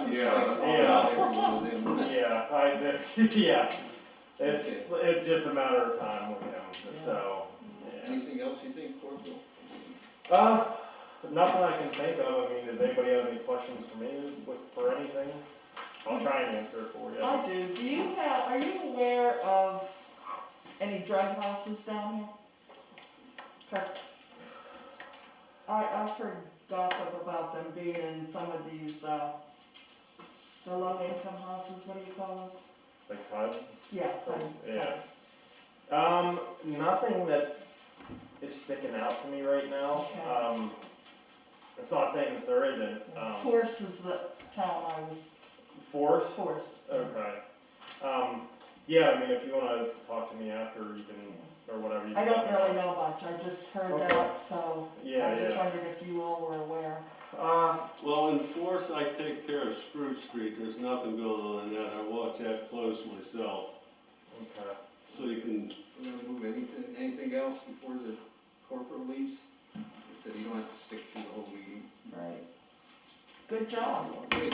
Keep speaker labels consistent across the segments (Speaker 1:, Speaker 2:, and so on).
Speaker 1: I, that- yeah, it's,
Speaker 2: Okay.
Speaker 1: it's just a matter of time with him,
Speaker 2: Yeah.
Speaker 1: so, yeah.
Speaker 2: Anything else you think, Corporal?
Speaker 1: Uh, nothing I can think of, I mean, does anybody have any questions for me with, for anything? I'll try and answer it for you.
Speaker 3: I do, do you have, are you aware of any drug houses down here? Cause I, I've heard gossip about them being in some of these, uh, the low income houses, what do you call those?
Speaker 1: Like HUD?
Speaker 3: Yeah. I-
Speaker 1: Yeah. Um, nothing that is sticking out to me right now,
Speaker 3: Okay.
Speaker 1: um, it's not saying that there isn't, um,
Speaker 3: Force is the town I was,
Speaker 1: force,
Speaker 3: Force.
Speaker 1: okay. Um, yeah, I mean, if you wanna talk to me after, you can, or whatever. you
Speaker 3: I don't
Speaker 1: can-
Speaker 3: really know much, I just heard that, so I
Speaker 1: Yeah,
Speaker 3: just
Speaker 1: yeah,
Speaker 3: wondered if you all were aware.
Speaker 1: uh,
Speaker 4: Well, in Forest, I take care of Spruce Street, there's nothing going on in that, I watch that close myself,
Speaker 1: okay.
Speaker 4: so you can,
Speaker 2: We're gonna move anything, anything else before the corporal leaves? He said you don't have to stick through the whole meeting.
Speaker 3: Right. Good job,
Speaker 2: Great.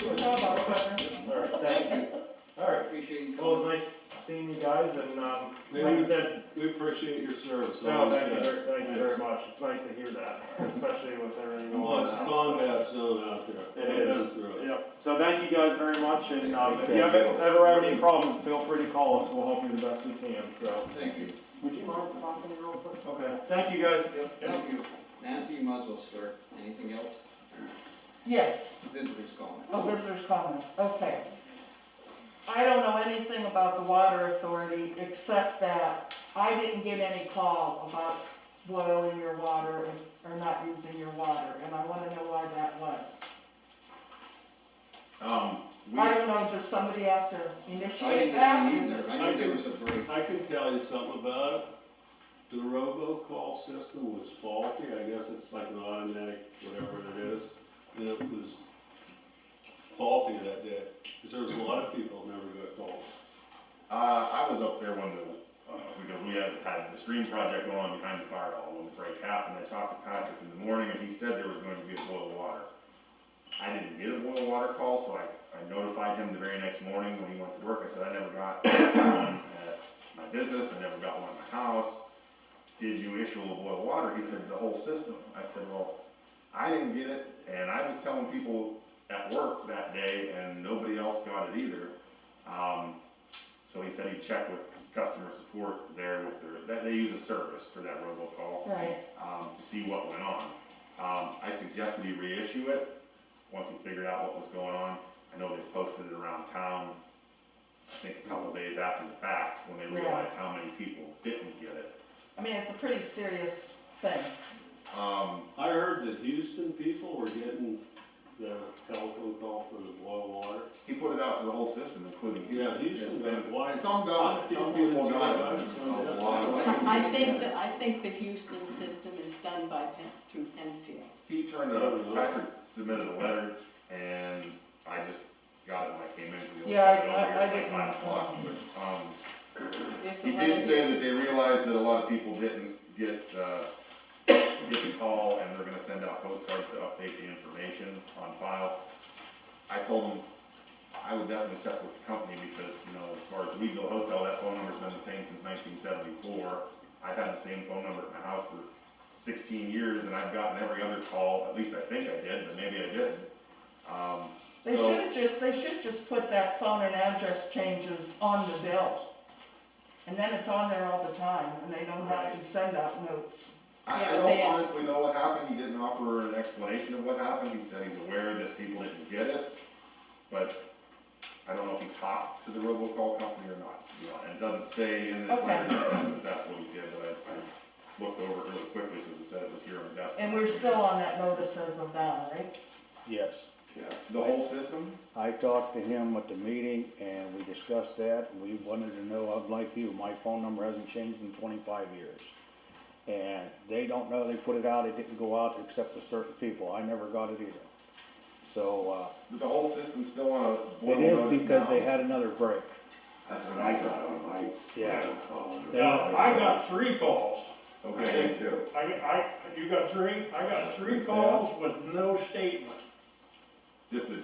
Speaker 3: good job, Oliver.
Speaker 1: Alright, thank
Speaker 2: Thank
Speaker 1: you.
Speaker 2: you,
Speaker 1: Alright,
Speaker 2: appreciate you
Speaker 1: well,
Speaker 2: coming.
Speaker 1: it's nice seeing you guys and, um, like I
Speaker 4: Maybe-
Speaker 1: said,
Speaker 4: we appreciate your service.
Speaker 1: no,
Speaker 4: always
Speaker 1: thank you,
Speaker 4: good.
Speaker 1: very- thank you very much. It's nice to hear that, especially with everything going
Speaker 4: Well,
Speaker 1: on.
Speaker 4: it's a combat zone out there.
Speaker 1: It
Speaker 4: I've been
Speaker 1: is.
Speaker 4: through it.
Speaker 1: Yep, so thank you guys very much and, um, if you ever, ever have any problems, feel free to call us. We'll help you the best we can, so.
Speaker 2: Thank you.
Speaker 1: Would you mind talking real quick? Okay, thank you guys.
Speaker 2: Thank you. Nancy, you might as well start. Anything else?
Speaker 3: Yes.
Speaker 2: Visitors calling.
Speaker 3: Oh, visitor's comments, okay. I don't know anything about the water authority, except that I didn't get any call about boiling your water and- or not using your water, and I wanna know why that was.
Speaker 5: Um, we,
Speaker 3: I don't know, does somebody have to
Speaker 2: I didn't
Speaker 3: initiate
Speaker 2: get
Speaker 3: that?
Speaker 2: one either. I knew there was a break.
Speaker 4: I can tell you something about it, the robo-call system was faulty, I guess it's like an automatic, whatever it is, and it was faulty that day, because there was a lot of people that never got calls.
Speaker 5: uh, I was up there when the, uh, because we had, had the stream project going on behind the fire hall when the break happened. I talked to Patrick in the morning and he said there was going to be a boil of water. I didn't get a boil of water call, so I, I notified him the very next morning when he went to work. I said, I never got one at my business, I never got one at my house. Did you issue a boil of water? He said, the whole system. I said, well, I didn't get it and I was telling people at work that day and nobody else got it either. Um, So he said he checked with customer support there with their, that they use a service for that robocall,
Speaker 3: Right,
Speaker 5: um, to see what went on. Um, I suggested he reissue it, once he figured out what was going on. I know they posted it around town, I think a couple days after the fact, when they
Speaker 3: Yeah.
Speaker 5: realized how many people didn't get it.
Speaker 3: I mean, it's a pretty serious thing.
Speaker 5: Um,
Speaker 4: I heard that Houston people were getting the telephone call for the boil water.
Speaker 5: he put it out for the whole system, including Houston.
Speaker 4: Yeah, Houston, but why?
Speaker 5: Some got it, some people got it, but
Speaker 4: some
Speaker 5: a
Speaker 4: didn't.
Speaker 5: lot of
Speaker 6: I think, that- I think the Houston system is done by Pen, through Penfield.
Speaker 5: He turned it up, Patrick submitted a letter, and I just got it when I came in. 'cause it was
Speaker 3: Yeah, I-
Speaker 5: over here
Speaker 3: I- I
Speaker 5: at like
Speaker 3: didn't-
Speaker 5: Five o'clock, but, um,
Speaker 6: There's a
Speaker 5: he
Speaker 6: letter
Speaker 5: did say
Speaker 6: here.
Speaker 5: that they realized that a lot of people didn't get, uh, get the call, and they're gonna send out postcards to update the information on file. I told him, I would definitely check with the company, because, you know, as far as Weedville Hotel, that phone number's been the same since nineteen seventy-four. I've had the same phone number at my house for sixteen years, and I've gotten every other call, at least I think I did, but maybe I didn't. Um,
Speaker 3: They
Speaker 5: so,
Speaker 3: should've just, they should just put that phone and address changes on the bill. And then it's on there all the time, and they don't have to send out notes.
Speaker 5: I,
Speaker 6: Yeah,
Speaker 5: I
Speaker 6: but
Speaker 5: don't
Speaker 6: they-
Speaker 5: honestly know what happened, he didn't offer an explanation of what happened, he said he's aware that people didn't get it, but I don't know if he talked to the robocall company or not, you know, and it doesn't say in this
Speaker 3: Okay.
Speaker 5: letter that that's what he did, but I, I looked over it really quickly, cause it said it was here on the desk.
Speaker 3: And we're still on that notice as of now, right?
Speaker 7: Yes,
Speaker 5: The whole system?
Speaker 7: I talked to him at the meeting and we discussed that, and we wanted to know, I'm like you, my phone number hasn't changed in twenty-five years. And they don't know, they put it out, it didn't go out except to certain people, I never got it either. So,
Speaker 5: The whole system's still on a
Speaker 7: uh, it
Speaker 5: boil
Speaker 7: is
Speaker 5: notice
Speaker 7: because they
Speaker 5: now.
Speaker 7: had another break,
Speaker 8: That's what I got on my
Speaker 7: yeah.
Speaker 8: phone.
Speaker 7: They
Speaker 1: Uh,
Speaker 7: don't-
Speaker 9: I got three calls.
Speaker 8: I
Speaker 5: Okay,
Speaker 8: did too.
Speaker 9: I, I, you got three? I got three calls with no statement.
Speaker 5: just a